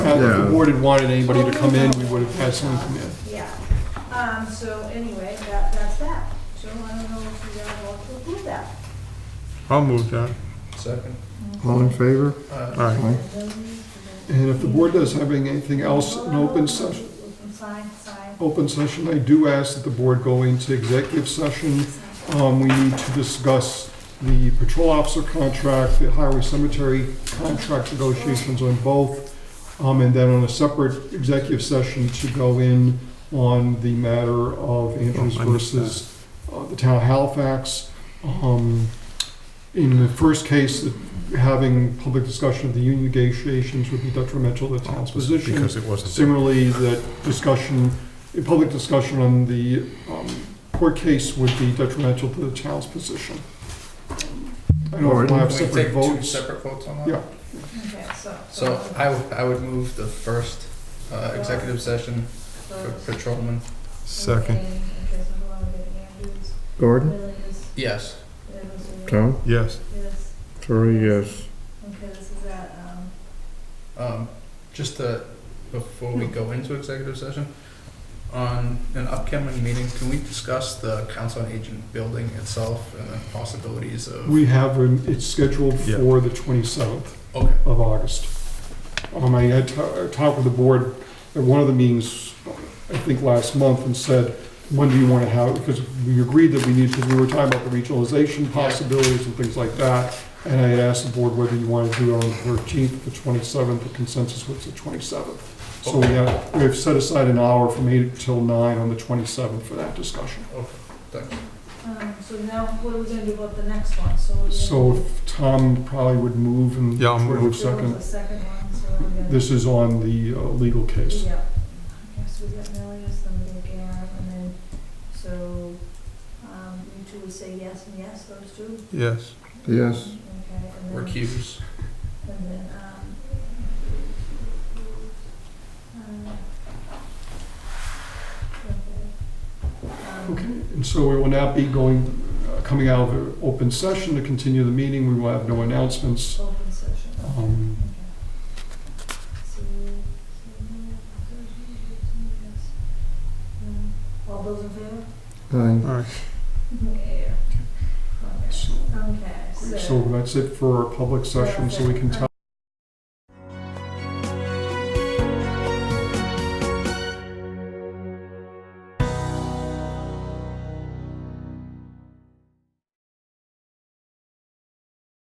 if the Yeah. board had wanted anybody to come in, we would have had someone come in. Yeah, um, so anyway, that, that's that. So I don't know if you guys want to approve that. I'll move that. Second. All in favor? Aye. Aye. And if the board does have anything else in open session, Um, Sign, sign. open session, I do ask that the board go into executive session. Um, we need to discuss the patrol officer contract, the highway cemetery contract negotiations on both. Um, and then on a separate executive session to go in on the matter of Andrews Oh, I missed versus uh, the town of Halifax. Um, in the first case, having public discussion of the union negotiations would be detrimental to the town's position. Because it wasn't. Similarly, that discussion, a public discussion on the um, court case would be detrimental to the town's position. I don't know if we'll have Can we separate take two votes. separate votes on that? Yeah. Okay, so. So I, would- I would move the first uh, executive session uh, for patrolman. Second, Okay, okay, so who are we getting? Andrews, Gordon? Williams, Yes. Evans, Tom? yes. Yes, Three, yes. okay, this is that, um, Um, Just to, before we go into executive session, on an upcoming meeting, can we discuss the council on agent building itself and the possibilities of? We have, um, it's scheduled Yeah. for the 27th Okay, of August. Um, I had ta- I talked with the board at one of the meetings, I think last month, and said, when do you want to have, because we agreed that we needed, because we were talking about the regionalization possibilities and things like that. And I had asked the board whether you wanted to do it on the 13th, the 27th, the consensus was the 27th. So we have, we have set aside an hour from 8 till 9 on the 27th for that discussion. um, so now what are we gonna do about the next one? So we're gonna. So if Tom probably would move and. Yeah, I'll move. There was Second, a second one, so we're gonna. this is on the uh, legal case. Yeah. Okay, so we got Melius, then we got Garen, and then, so, um, you two would say yes and yes, those two? Yes. Yes. Okay, and then, recuse. and then, um, um, okay. Um, Okay, and so we will now be going, uh, coming out of the open session to continue the meeting. We will have no announcements. Open session, okay. Um, So, so, no, thirteen, fifteen, yes. Um, All those in favor? Aye. All right. Yeah. Okay. so- Okay, so. So that's it for our public session, so we can talk.